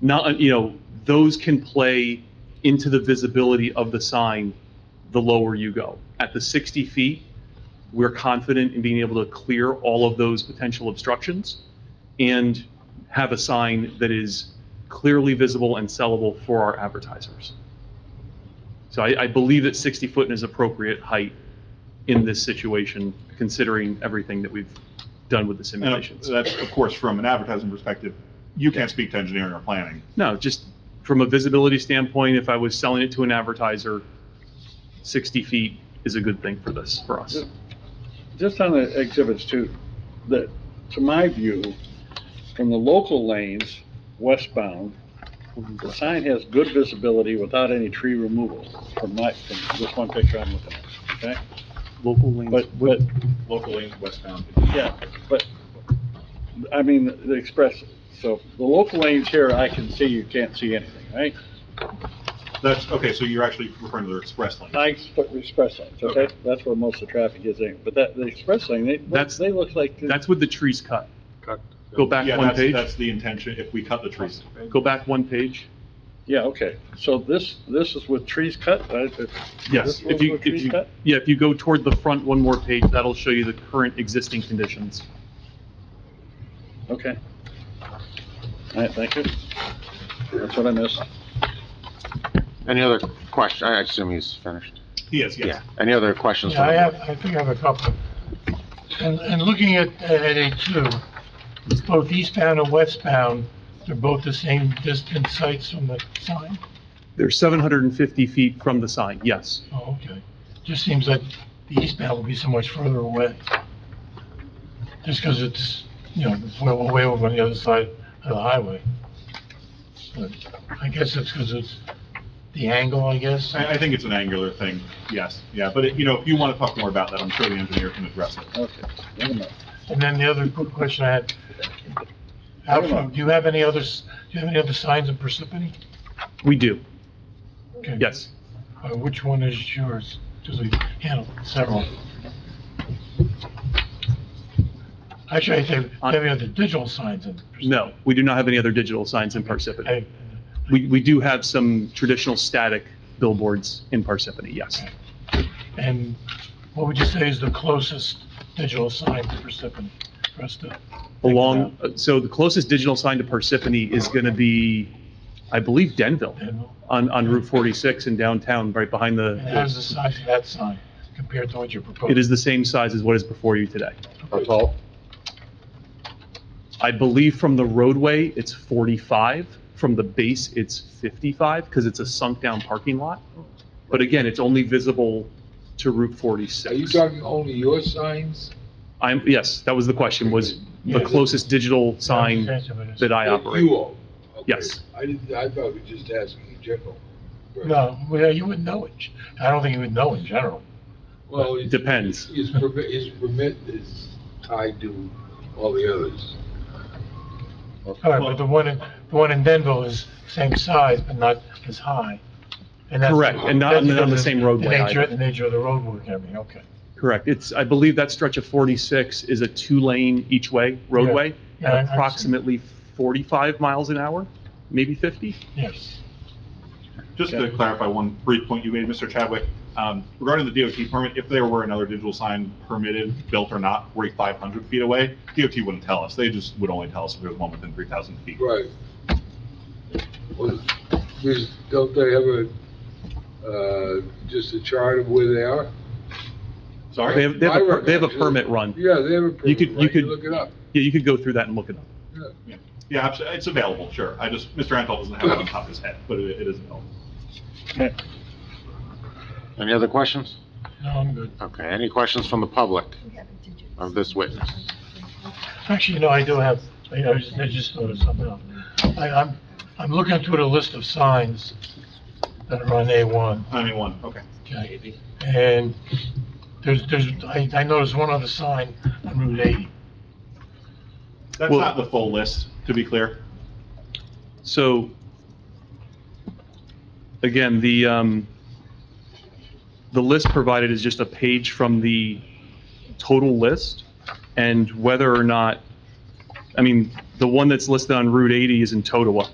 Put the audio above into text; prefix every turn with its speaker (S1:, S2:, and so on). S1: not, uh, you know, those can play into the visibility of the sign the lower you go. At the 60 feet, we're confident in being able to clear all of those potential obstructions and have a sign that is clearly visible and sellable for our advertisers. So I, I believe that 60 foot is appropriate height in this situation, considering everything that we've done with the
S2: And uh,
S1: simulations.
S2: that's, of course, from an advertising perspective, you can't speak to engineering or planning.
S1: No, just from a visibility standpoint, if I was selling it to an advertiser, 60 feet is a good thing for this, for us.
S3: Just on the exhibits too, that, to my view, from the local lanes westbound, the sign has good visibility without any tree removal from my, from this one picture I'm looking at, okay?
S1: Local lanes.
S3: But, but,
S2: Local lanes westbound.
S3: yeah, but, I mean, the express, so the local lanes here, I can see, you can't see anything, right?
S2: That's, okay, so you're actually referring to the express lane.
S3: I expect express lanes, okay?
S2: Okay.
S3: That's where most of the traffic is in, but that, the express lane, they,
S1: That's-
S3: they look like.
S1: That's with the trees cut. Go back
S2: Yeah,
S1: one
S2: that's-
S1: page.
S2: That's the intention, if we cut the trees.
S1: Go back one page.
S3: Yeah, okay, so this, this is with trees cut, right? It-
S1: Yes,
S3: This
S1: if
S3: one's
S1: you,
S3: with
S1: if
S3: trees
S1: you,
S3: cut?
S1: yeah, if you go toward the front one more page, that'll show you the current existing conditions.
S3: Okay. All right, thank you. That's what I missed.
S4: Any other question? I assume he's finished.
S2: Yes,
S4: Yeah.
S2: yes.
S4: Any other questions?
S5: Yeah, I
S4: from the
S5: have,
S4: board?
S5: I think I have a couple. And, and looking at, at A2, it's both eastbound and westbound, they're both the same distance sites from the sign?
S1: They're 750 feet from the sign, yes.
S5: Oh, okay. Just seems like the eastbound will be so much further away. Just because it's, you know, it's way, way over on the other side of the highway. But I guess it's because it's the angle, I guess.
S2: I, I think it's an angular thing, yes, yeah, but, it- you know, if you want to talk more about that, I'm sure the engineer can address it.
S3: Okay. Wait a minute.
S5: And then the other quick question I had, Alfred, do you have any others, do you have any other signs in Parsippany?
S1: We do,
S5: Okay.
S1: yes.
S5: Uh, Which one is yours? Because we handled several. Actually, I think,
S1: On-
S5: maybe other digital signs in Parsippany.
S1: No, we do not have any other digital signs in Parsippany.
S5: Okay.
S1: We, we do have some traditional static billboards in Parsippany, yes.
S5: And what would you say is the closest digital sign to Parsippany for us to?
S1: Along, uh, so the closest digital sign to Parsippany is going to be, I believe, Denville,
S5: And
S1: on, on Route 46 in downtown, right behind
S5: and how's the
S1: the,
S5: size of that sign compared to what you're proposing?
S1: it is the same size as what is before you today.
S6: How tall?
S1: I believe from the roadway, it's 45. From the base, it's 55 because it's a sunk-down parking lot. But again, it's only visible to Route
S6: Are you
S1: 46.
S6: talking only your signs?
S1: I'm, yes, that was the question, was the
S5: Yeah.
S1: closest digital sign that I
S6: That
S1: operate.
S6: You own? Okay.
S1: Yes.
S6: I didn't, I thought we were just asking in general.
S5: No, well, you wouldn't know it. I don't think you would know in general.
S6: Well, it-
S1: Depends.
S6: His permit, his permit is tied to all the others.
S5: All right, but the one in, the one in Denville is same size, but not as high. And that's-
S1: Correct, and not
S5: that's
S1: on the- on the
S5: because of
S1: same roadway
S5: The nature,
S1: either.
S5: the nature of the roadwork, and everything, okay.
S1: Correct. It's, I believe that stretch of 46 is a two-lane each-way roadway
S5: Yeah, I- I've
S1: at
S5: seen-
S1: approximately 45 miles an hour, maybe 50?
S5: Yes.
S2: Just to clarify one brief point you made, Mr. Chadwick, um, regarding the DOT permit, if there were another digital sign permitted, built or not, 4,500 feet away, DOT wouldn't tell us. They just would only tell us if there was one within 3,000 feet.
S6: Right. Well, there's- Don't they have a, uh, just a chart of where they are?
S1: They
S2: Sorry?
S1: have, they have, a per- they have a
S6: My recollection-
S1: permit run. Yeah,
S6: Yeah, they have a permit.
S1: could- you
S6: run.
S1: could-
S6: Look it up.
S1: you could go through that and look it up.
S6: Yeah.
S2: Yeah, abso- it's available, sure. I just, Mr. Antal doesn't have it on top of his head, but it it is available.
S3: Okay.
S4: Any other questions?
S5: No, I'm good.
S4: Okay, any questions from the public of this witness?
S5: Actually, no, I do have, I I just, I just thought of something else. I, I'm, I'm looking through the list of signs that are on A1,
S2: I mean, one, okay.
S5: okay? And there's, there's, I, I noticed one other sign on Route 80.
S2: That's
S1: Well-
S2: not the full list, to be clear.
S1: So, again, the, um, the list provided is just a page from the total list, and whether or not, I mean, the one that's listed on Route 80 is in Totowa,